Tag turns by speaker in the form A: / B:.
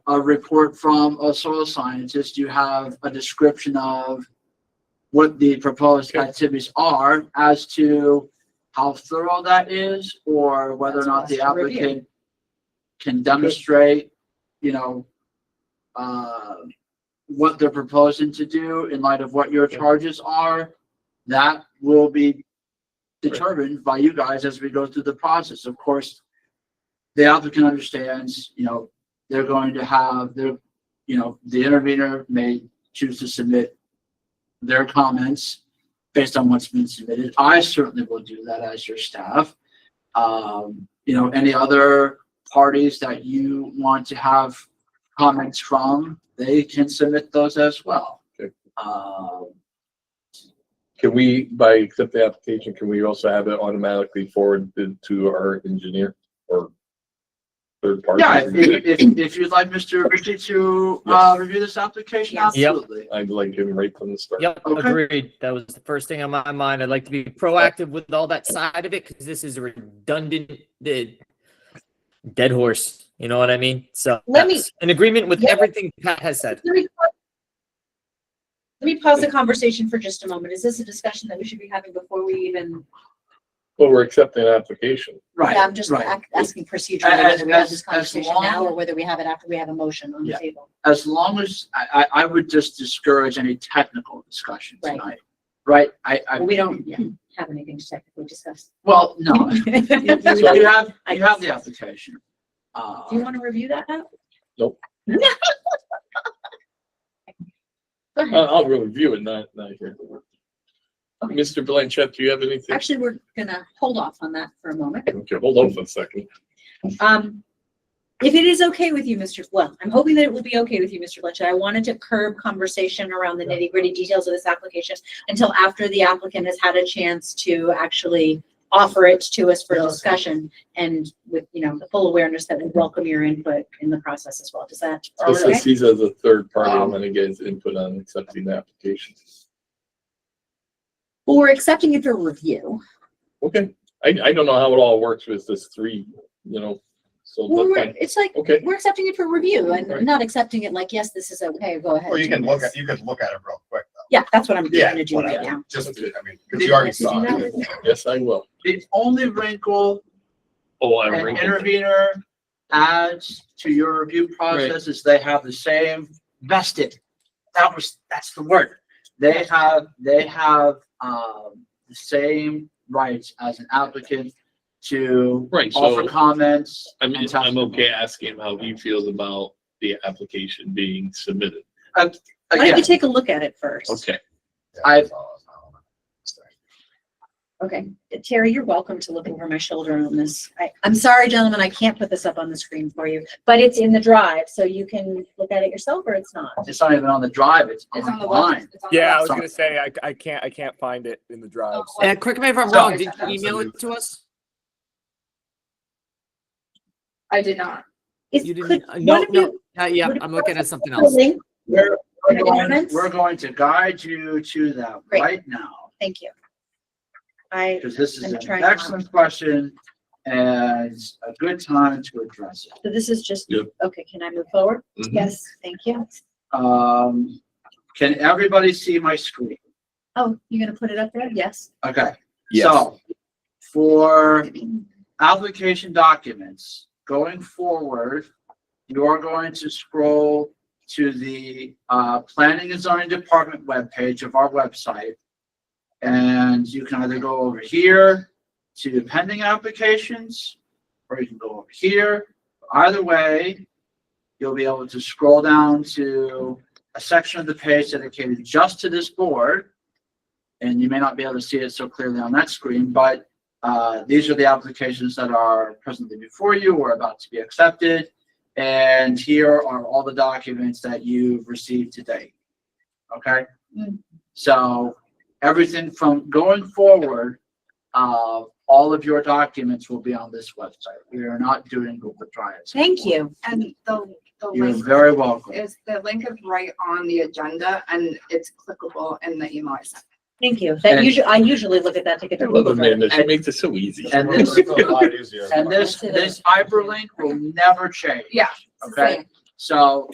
A: a report from a soil scientist, you have a description of what the proposed
B: Okay.
A: activities are as to how thorough that is, or whether or
C: That's
A: not
C: for
A: the
C: us to review.
A: applicant can demonstrate, you know, uh, what they're proposing to do in light of what your
B: Okay.
A: charges are. That will be determined by you guys as we go through the process. Of course, the applicant understands, you know, they're going to have their, you know, the intervener may choose to submit their comments based on what's been submitted. I certainly will do that as your staff. Um, you know, any other parties that you want to have comments from, they can submit those as well.
B: Okay.
A: Um,
B: Can we, by accept the application, can we also have it automatically forwarded to our engineer or third party?
A: yeah, if, if, if- if you'd like Mr. Ritchie to, uh, review this application,
C: Yes.
D: Yep.
A: absolutely.
B: I'd like him right from the start.
D: Yep,
A: Okay.
D: agreed. That was the first thing on my mind. I'd like to be proactive with all that side of it because this is a redundant the dead horse. You know what I mean? So
C: Let me-
D: yes, in agreement with
C: Yeah.
D: everything Pat has said.
C: Let me pause- let me pause the conversation for just a moment. Is this a discussion that we should be having before we even,
B: Well, we're accepting an application.
A: Right,
C: Yeah, I'm just
A: right.
C: ac- asking procedure,
A: As-
C: whether we have
A: as- as
C: this conversation
A: long-
C: now or whether we have it after we have a motion on the
A: Yeah.
C: table.
A: as long as, I, I, I would just discourage any technical discussion
C: Right.
A: tonight. Right, I, I.
C: We don't yeah, have anything to technically discuss.
A: Well, no, you, you
C: Do
A: you have,
C: I
A: you have
C: guess.
A: the application. Uh,
C: you want to review that now?
B: Nope.
C: Go
B: I-
C: ahead.
B: I'll review it, not, not here. Mr. Blanchett, do you have anything?
C: Actually, we're gonna hold off on that for a moment.
B: Okay, hold on for a second.
C: Um, if it is okay with you, Mr., well, I'm hoping that it will be okay with you, Mr. Blanchett. I wanted to curb conversation around the nitty gritty details of this application until after the applicant has had a chance to actually offer it to us for discussion and with, you know, the full awareness that we welcome your input in the process as well. Does that? all
B: This is,
C: right?
B: he's as a third party, I'm gonna get his input on accepting the application.
C: Well, we're accepting it for review.
B: Okay, I, I don't know how it all works with this three, you know, so,
C: Well,
B: that's
C: we're,
B: fine.
C: it's like,
B: okay,
C: we're accepting it for review
B: Right.
C: and not accepting it like, yes, this is okay, go ahead.
E: Or you
C: do
E: can look
C: this.
E: at, you can look at it real quick. though.
C: Yeah, that's what I'm trying to do
E: whatever.
C: right now.
E: Just, I mean, because you already saw it.
B: yes, I will.
A: The only wrinkle
B: Oh, I
A: an intervener adds to your review process is they have the same vested. That was, that's the word. They have, they have, um, the same rights as an applicant to
F: Right, so-
A: offer comments.
F: I mean,
A: and
F: I'm
A: testimony.
F: okay asking him how he feels about the application being submitted.
C: Why don't
A: Again,
C: we take a look at it first?
F: Okay.
E: Yeah,
A: I-
E: that's all I was-
C: Okay, Terry, you're welcome to look over my shoulder on this. I, I'm sorry, gentlemen, I can't put this up on the screen for you, but it's in the drive, so you can look at it yourself or it's not.
A: it's not even on the drive, it's
G: It's on the
A: online.
G: website. It's on the
H: Yeah, I was
A: Sorry.
H: gonna say, I, I can't, I can't find it in the drive. so-
G: Uh,
D: correct me if I'm
A: wrong,
E: did you email it
D: to us?
G: I did not.
C: Is,
D: You
C: could,
D: didn't- uh, no,
C: one of you?
D: Not
C: yet. I'm looking
D: at something
C: put a link?
A: We're, we're
C: Any
A: going,
C: comments?
A: we're going to guide you to that
C: Great.
A: right now,
C: Thank you. I,
A: because this is
C: I'm
A: an
C: trying to-
A: excellent question and a good time to address it.
C: so this is just,
F: Yep.
C: okay, can I move forward?
D: Mm-hmm.
F: Mhm.
C: Yes. Thank you.
A: Um, can everybody see my screen?
C: Oh, you're gonna put it up there? Yes.
A: Okay, so for application documents, going forward, you are going to scroll to the uh, Planning and Zoning Department webpage of our website. And you can either go over here to pending applications, or you can go over here. Either way, you'll be able to scroll down to a section of the page dedicated just to this board. And you may not be able to see it so clearly on that screen, but uh, these are the applications that are presently before you or about to be accepted. And here are all the documents that you've received today. Okay?
C: Mm.
A: So everything from going forward, uh, all of your documents will be on this website. We are not doing Google Drive.
C: Thank you.
G: And the, the
A: You're
G: link
A: very welcome.
G: is, the link is right on the agenda and it's clickable in the email I sent.
C: Thank you. That
A: And-
C: usually, I usually look at that to get
B: I
C: the.
B: love Amanda, she
A: And-
B: makes it so easy.
A: And
E: It's
A: this,
E: a lot easier.
A: and this, this hyperlink will never change.
G: Yeah.
A: Okay, So